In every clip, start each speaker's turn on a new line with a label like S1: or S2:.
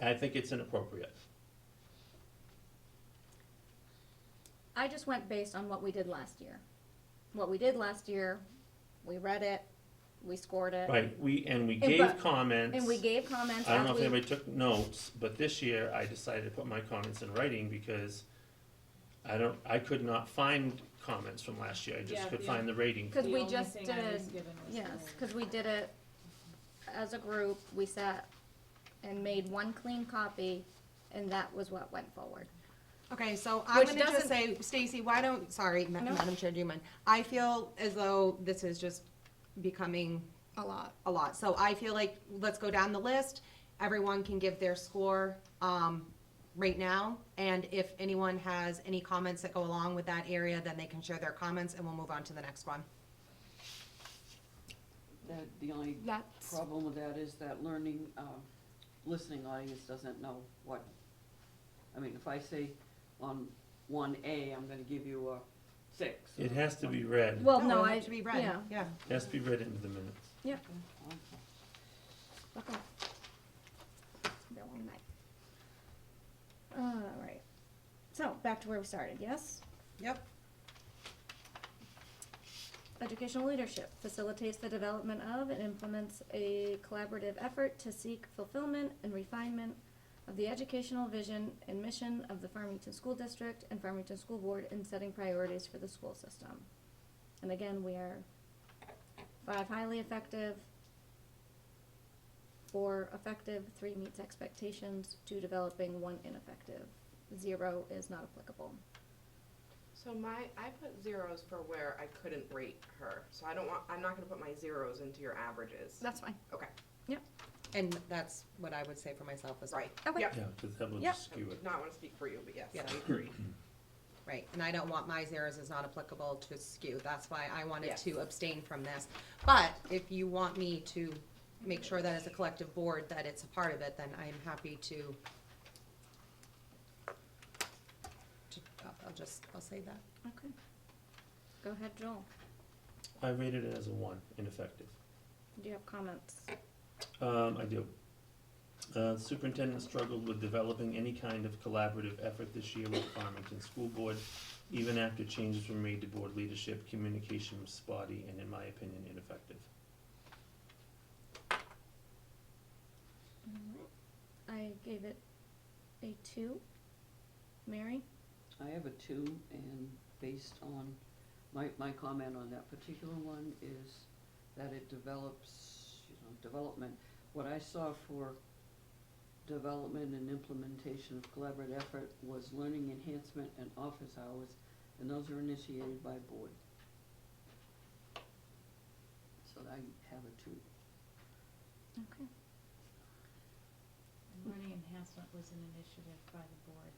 S1: I think it's inappropriate.
S2: I just went based on what we did last year. What we did last year, we read it, we scored it.
S1: Right, we, and we
S2: And
S1: gave
S2: but-
S1: comments.
S2: And we gave comments
S1: I don't know
S2: after
S1: if
S2: we,
S1: anybody took notes, but this year I decided to put my comments in writing because I don't, I could not find comments from last year, I just
S3: Yeah,
S1: could
S3: yeah.
S1: find the rating.
S2: cause
S3: The
S2: we
S3: only
S2: just
S3: thing
S2: did,
S3: I was given was
S2: yes,
S3: the-
S2: cause we did it as a group, we sat and made one clean copy, and that was what went forward.
S4: Okay, so I'm
S2: Which
S4: gonna just
S2: doesn't-
S4: say, Stacy, why don't, sorry, Ma-
S2: No.
S4: Madam Chair, do you mind? I feel as though this is just becoming
S2: A lot.
S4: a lot, so I feel like, let's go down the list. Everyone can give their score, um, right now, and if anyone has any comments that go along with that area, then they can share their comments, and we'll move on to the next one.
S5: The, the only
S2: That's,
S5: problem with that is that learning, um, listening audience doesn't know what, I mean, if I say on one A, I'm gonna give you a six.
S1: It
S5: or
S1: has to be
S5: something.
S1: read,
S2: well, no, I,
S4: we want it To be read,
S2: yeah,
S4: yeah.
S1: It has to be read into the minutes.
S5: Okay.
S2: okay. It's been a long night. Alright, so, back to where we started, yes?
S4: Yep.
S2: Educational leadership facilitates the development of and implements a collaborative effort to seek fulfillment and refinement of the educational vision and mission of the Farmington School District and Farmington School Board in setting priorities for the school system. And again, we are five highly effective, four effective, three meets expectations, two developing, one ineffective, zero is not applicable.
S6: So my, I put zeros for where I couldn't rate her, so I don't want, I'm not gonna put my zeros into your averages.
S2: That's fine.
S6: Okay,
S4: And that's what I would say for myself as well.
S6: right.
S2: Okay.
S6: Yep.
S1: Yeah, because that would
S2: Yep.
S6: I
S1: skew
S6: did
S1: it.
S6: not wanna speak for you, but yes,
S4: Yeah.
S6: I agree.
S4: Right, and I don't want my zeros is not applicable to skew, that's why I wanted
S6: Yes.
S4: to abstain from this. But if you want me to make sure that as a collective board, that it's a part of it, then I am happy to. to- I'll- I'll just, I'll say that.
S2: Okay. Go ahead, Joel,
S1: I rated it as a one, ineffective.
S2: do you have comments?
S1: Um, I do. Uh, superintendent struggled with developing any kind of collaborative effort this year with Farmington School Board, even after changes were made to board leadership, communication was spotty, and in my opinion, ineffective.
S2: I gave it a two. Mary?
S5: I have a two, and based on, my, my comment on that particular one is that it develops, you know, development. What I saw for development and implementation of collaborative effort was learning enhancement and office hours, and those are initiated by board. So I have a two.
S2: Okay.
S3: Learning enhancement was an initiative by the board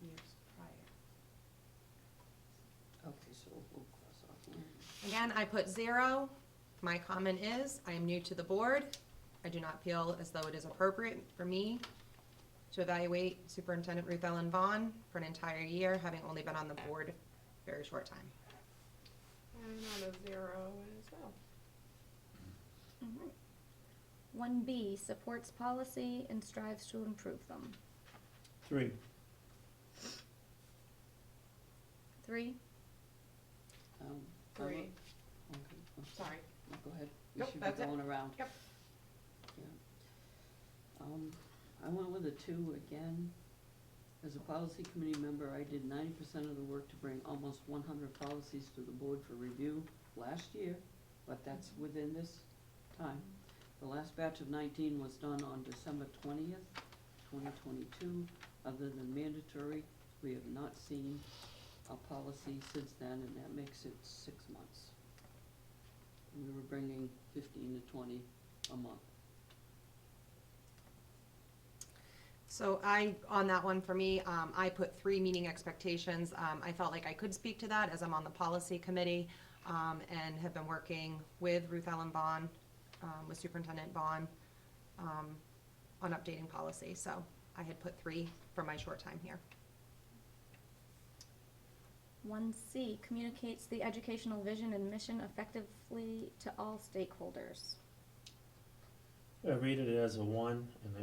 S3: the years prior.
S5: Okay, so we'll cross off one.
S4: Again, I put zero. My comment is, I am new to the board. I do not feel as though it is appropriate for me to evaluate Superintendent Ruth Ellen Vaughn for an entire year, having only been on the board a very short time.
S6: I'm on a zero as well.
S2: Alright. One B, supports policy and strives to improve them.
S1: Three,
S2: Three,
S5: Um, I
S6: Three,
S5: look- Okay, oh,
S6: sorry.
S5: no, go ahead. We
S6: Nope,
S5: should be
S6: that's it.
S5: going around.
S6: Yep.
S5: Yeah. Um, I went with a two again. As a policy committee member, I did ninety percent of the work to bring almost one hundred policies to the board for review last year, but that's within this time. The last batch of nineteen was done on December twentieth, twenty twenty-two. Other than mandatory, we have not seen a policy since then, and that makes it six months. And we were bringing fifteen to twenty a month.
S4: So I, on that one for me, um, I put three meeting expectations. Um, I felt like I could speak to that as I'm on the policy committee, um, and have been working with Ruth Ellen Vaughn, um, with Superintendent Vaughn, um, on updating policy. So I had put three for my short time here.
S2: one C, communicates the educational vision and mission effectively to all stakeholders.
S1: I rated it as a one, and I